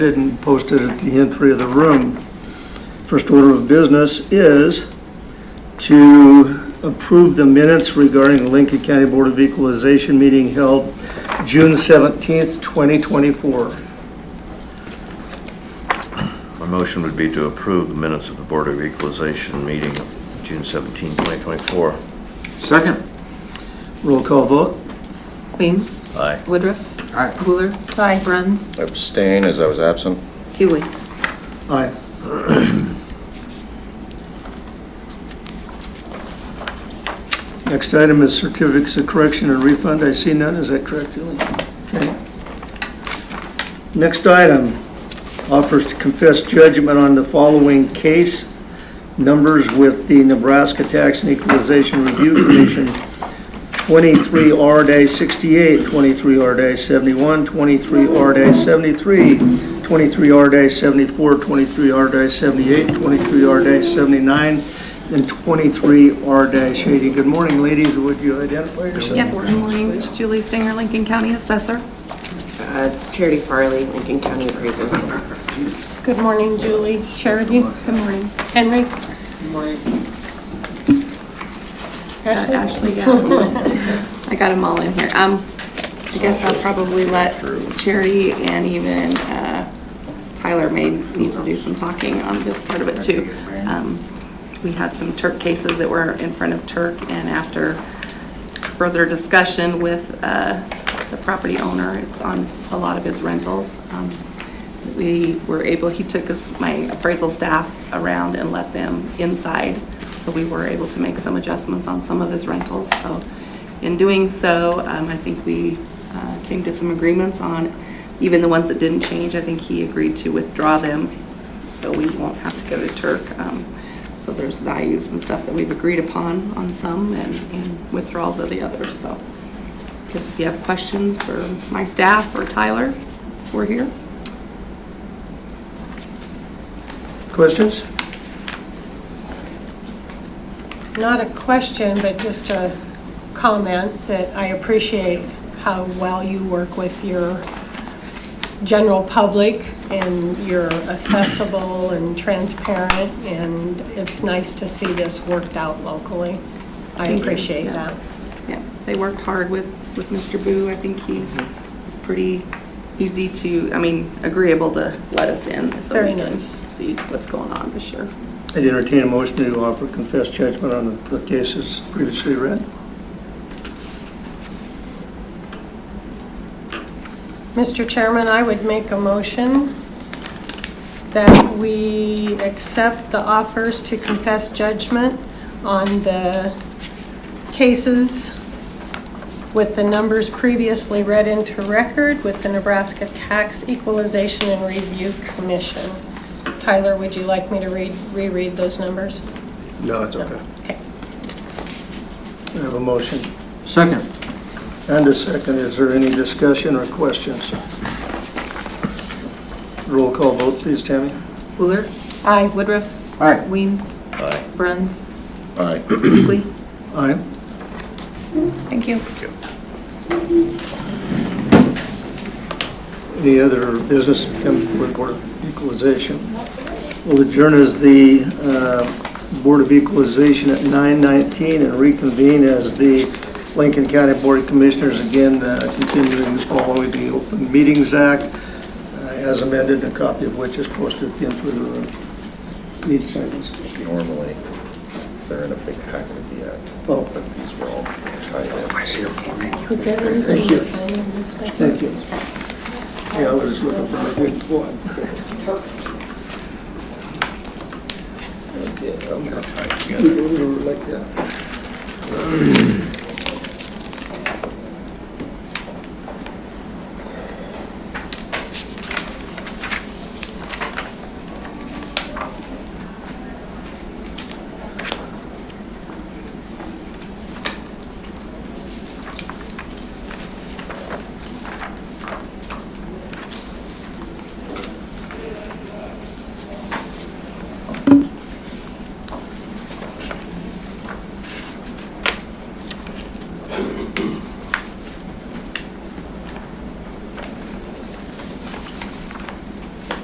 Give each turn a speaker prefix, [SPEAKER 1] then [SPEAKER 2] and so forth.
[SPEAKER 1] and posted at the entry of the room. First order of business is to approve the minutes regarding the Lincoln County Board of Equalization meeting held June 17th, 2024.
[SPEAKER 2] My motion would be to approve the minutes of the Board of Equalization meeting of June 17, 2024.
[SPEAKER 3] Second.
[SPEAKER 1] Roll call vote?
[SPEAKER 4] Weems.
[SPEAKER 2] Aye.
[SPEAKER 4] Woodruff.
[SPEAKER 3] Aye.
[SPEAKER 4] Wheeler. Aye. Bruns.
[SPEAKER 5] Abstain as I was absent.
[SPEAKER 4] Hewitt.
[SPEAKER 1] Aye. Next item is certificates of correction and refund. I see none, is that correct, Julie? Okay. Next item, offers to confess judgment on the following case. Numbers with the Nebraska Tax and Equalization Review Commission, 23R-68, 23R-71, 23R-73, 23R-74, 23R-78, 23R-79, and 23R-80. Good morning, ladies. Would you identify yourself?
[SPEAKER 6] Yeah, good morning, Julie Stinger, Lincoln County Assessor.
[SPEAKER 7] Uh, Charity Farley, Lincoln County Appraiser.
[SPEAKER 6] Good morning, Julie. Charity, good morning. Henry? Good morning. Ashley? yeah. I got them all in here. Um, I guess I'll probably let Charity and even uh, Tyler may need to do some talking on this part of it too. Um, We had some Turk cases that were in front of Turk and after further discussion with uh, the property owner, it's on a lot of his rentals. Um, we were able, he took us, my appraisal staff around and let them inside, so we were able to make some adjustments on some of his rentals, so in doing so, um, I think we, uh, came to some agreements on, even the ones that didn't change, I think he agreed to withdraw them, so we won't have to go to Turk. Um, so there's values and stuff that we've agreed upon on some and, and withdrawals of the others, so. Guess if you have questions for my staff or Tyler, we're here.
[SPEAKER 1] Questions?
[SPEAKER 8] not a question, but just a comment that I appreciate how well you work with your general public and you're accessible and transparent and it's nice to see this worked out locally. I
[SPEAKER 4] Thank you.
[SPEAKER 8] appreciate
[SPEAKER 4] Yeah.
[SPEAKER 8] that.
[SPEAKER 4] Yeah, they worked hard with, with Mr. Boo. I think he was pretty easy to, I mean, agreeable to let us in. so we
[SPEAKER 8] Very
[SPEAKER 4] can
[SPEAKER 8] nice.
[SPEAKER 4] See what's going on, for sure.
[SPEAKER 1] I'd entertain a motion to offer confessed judgment on the cases previously read.
[SPEAKER 8] Mr. Chairman, I would make a motion that we accept the offers to confess judgment on the cases with the numbers previously read into record with the Nebraska Tax Equalization and Review Commission. Tyler, would you like me to read, reread those numbers?
[SPEAKER 1] No, it's okay.
[SPEAKER 8] Okay.
[SPEAKER 1] I have a motion
[SPEAKER 3] Second.
[SPEAKER 1] and a second. Is there any discussion or questions? Roll call vote, please, Tammy.
[SPEAKER 4] Wheeler.
[SPEAKER 8] Aye.
[SPEAKER 4] Woodruff.
[SPEAKER 3] Aye.
[SPEAKER 4] Weems.
[SPEAKER 2] Aye.
[SPEAKER 4] Bruns.
[SPEAKER 5] Aye.
[SPEAKER 4] Hughley.
[SPEAKER 1] Aye.
[SPEAKER 8] Thank you.
[SPEAKER 1] Any other business come before the Board of Equalization? We'll adjourn as the uh, Board of Equalization at 9:19 and reconvene as the Lincoln County Board of Commissioners, again, uh, continuing to follow the Open Meetings Act uh, as amended, a copy of which is posted at the end of the room. Need seconds.
[SPEAKER 5] Normally, they're in a big packet at the end,
[SPEAKER 1] Oh,
[SPEAKER 5] but these were all tied in. I see.
[SPEAKER 8] Was there
[SPEAKER 1] Thank
[SPEAKER 8] anything
[SPEAKER 1] you.
[SPEAKER 8] to sign in this? paper?
[SPEAKER 1] thank you. Yeah, I was looking for a good one.
[SPEAKER 5] Okay, I'm gonna tie it
[SPEAKER 1] We
[SPEAKER 5] together.
[SPEAKER 1] were like that.